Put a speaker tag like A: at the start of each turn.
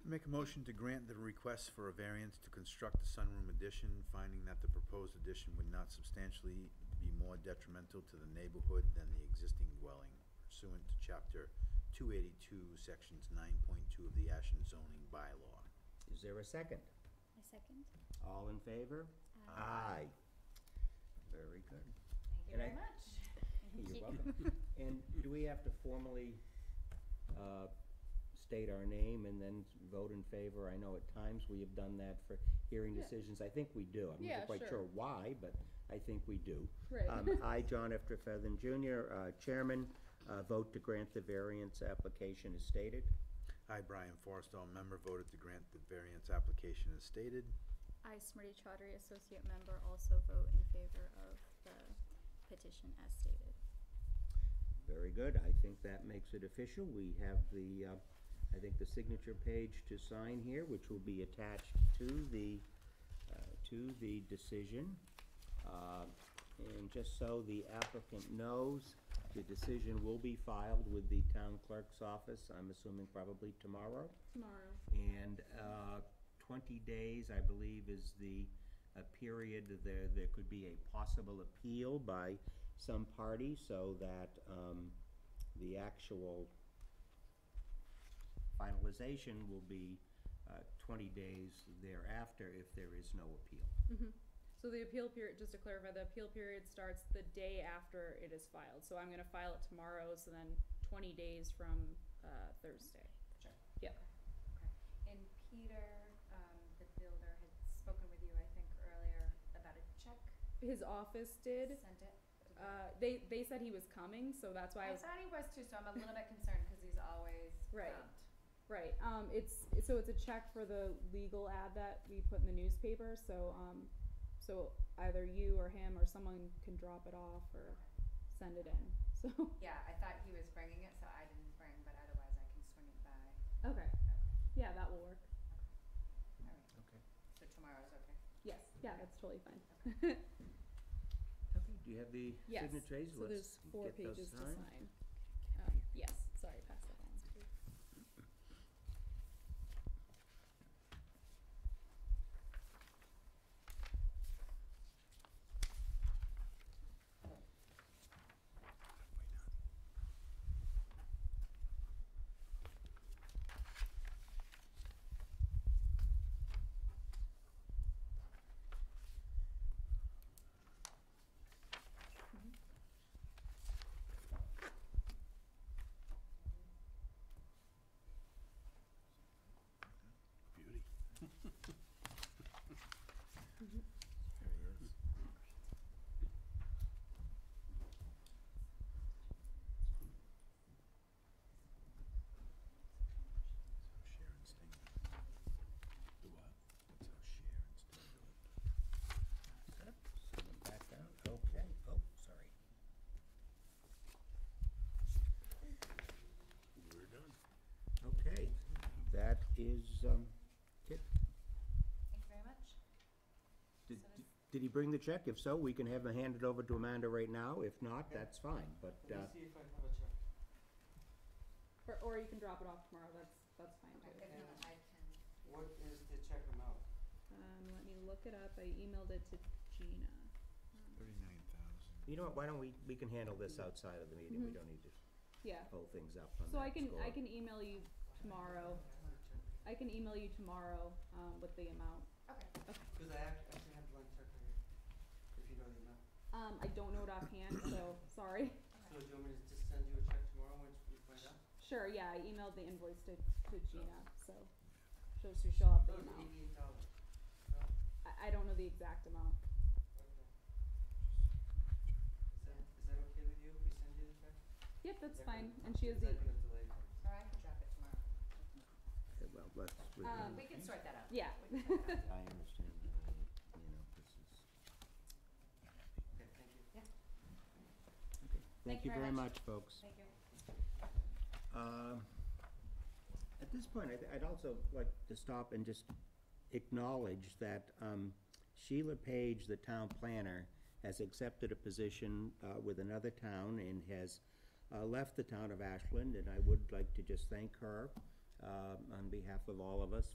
A: Make a motion to grant the request for a variance to construct the sunroom addition, finding that the proposed addition would not substantially be more detrimental to the neighborhood than the existing dwelling pursuant to chapter two eighty-two, sections nine point two of the Ashen zoning bylaw.
B: Is there a second?
C: I second. Uh,
B: All in favor? Aye. Very good.
D: Thank you
B: And
D: very
B: I-
D: much.
B: You're welcome. And do we have to formally uh, state our name and then vote in favor? I know at times we have done that for hearing
E: Yeah.
B: decisions. I think we do. I'm
E: Yeah,
B: not quite
E: sure.
B: sure why, but I think we do.
E: Right.
B: Um, I, John F. Trefethan Jr., uh, Chairman, uh, vote to grant the variance application as stated.
A: I, Brian Forrestall, member, voted to grant the variance application as stated.
C: I, Smriti Chaudhary, associate member, also vote in favor of the petition as stated.
B: Very good. I think that makes it official. We have the, uh, I think, the signature page to sign here, which will be attached to the, uh, to the decision. Uh, And just so the applicant knows, the decision will be filed with the town clerk's office, I'm assuming probably tomorrow.
E: Tomorrow.
B: And uh, 20 days, I believe, is the uh, period that there, there could be a possible appeal by some party so that um, the actual finalization will be uh, 20 days thereafter if there is no appeal.
E: So the appeal period, just to clarify, the appeal period starts the day after it is filed. So I'm gonna file it tomorrow, so then twenty days from, uh, Thursday.
D: Sure.
E: Yeah.
D: Okay. And Peter, um, the builder, had spoken with you, I think, earlier about a check.
E: His office did,
D: Sent it. Did they-
E: uh, they, they said he was coming, so that's why I
D: I
E: was,
D: thought he was too, so I'm a little bit concerned because he's always
E: Right.
D: prompt.
E: right. Um, it's, so it's a check for the legal ad that we put in the newspaper, so, um, so either you or him or someone can drop it off or send it in, so.
D: Yeah, I thought he was bringing it, so I didn't bring, but otherwise I can swing it by.
E: Okay,
D: Okay.
E: yeah, that will work.
D: All right.
B: Okay.
D: So tomorrow's okay.
E: Yes, yeah, that's totally fine.
B: Okay, do you have the
E: Yes.
B: signatures?
E: So
B: Let's
E: there's four
B: get those
E: pages to
B: signed.
E: sign. Um, Yes, sorry, pass that on.
A: Beauty. There he is. That's how Sharon Sting. Do what? That's how Sharon Sting do
B: Send them back down. Okay, oh, sorry.
A: it. We're done.
B: Okay, that is, um, it.
D: Thank you very much.
B: Did,
D: So does-
B: did he bring the check? If so, we can have him hand it over to Amanda right now. If not, that's fine, but,
F: Let
B: uh,
F: me see if I have a check.
E: Or, or you can drop it off tomorrow, that's, that's fine
D: If
E: too.
D: not, I can.
F: What is the check amount?
E: Um, let me look it up, I emailed it to Gina.
A: Thirty-nine thousand.
B: you know what, why don't we, we can handle this outside of the meeting. We
E: Mhm.
B: don't need to
E: Yeah,
B: pull things up on that
E: so I can, I
B: score.
E: can email you tomorrow, I can email you tomorrow, um, with the amount.
D: Okay.
F: Because I act- actually have one check right here, if you know the amount.
E: Um, I don't know it offhand, so, sorry.
F: So do you want me to just send you a check tomorrow once we find out?
E: Sure, yeah, I emailed the invoice to, to Gina, so, she'll, so she'll have the
F: No, it's
E: amount.
F: eighty-eight dollars. No? Okay.
E: I, I don't know the exact amount.
F: Is that, is that okay with you if we send you the check?
E: Yep, that's
F: Is that gonna-
E: fine, and she has
F: Is
E: the,
F: that gonna delay things?
D: Or I can drop it tomorrow.
B: Okay, Well, let's, we
E: Um,
D: We can sort that out.
E: yeah.
D: We can sort that out.
B: I understand, that, you know, this is.
F: Okay, thank you.
B: Thank you very much, folks.
D: Thank you.
B: Um, At this point, I'd- I'd also like to stop and just acknowledge that um, Sheila Page, the town planner, has accepted a position uh, with another town and has uh, left the town of Ashland, and I would like to just thank her uh, um, on behalf of all of us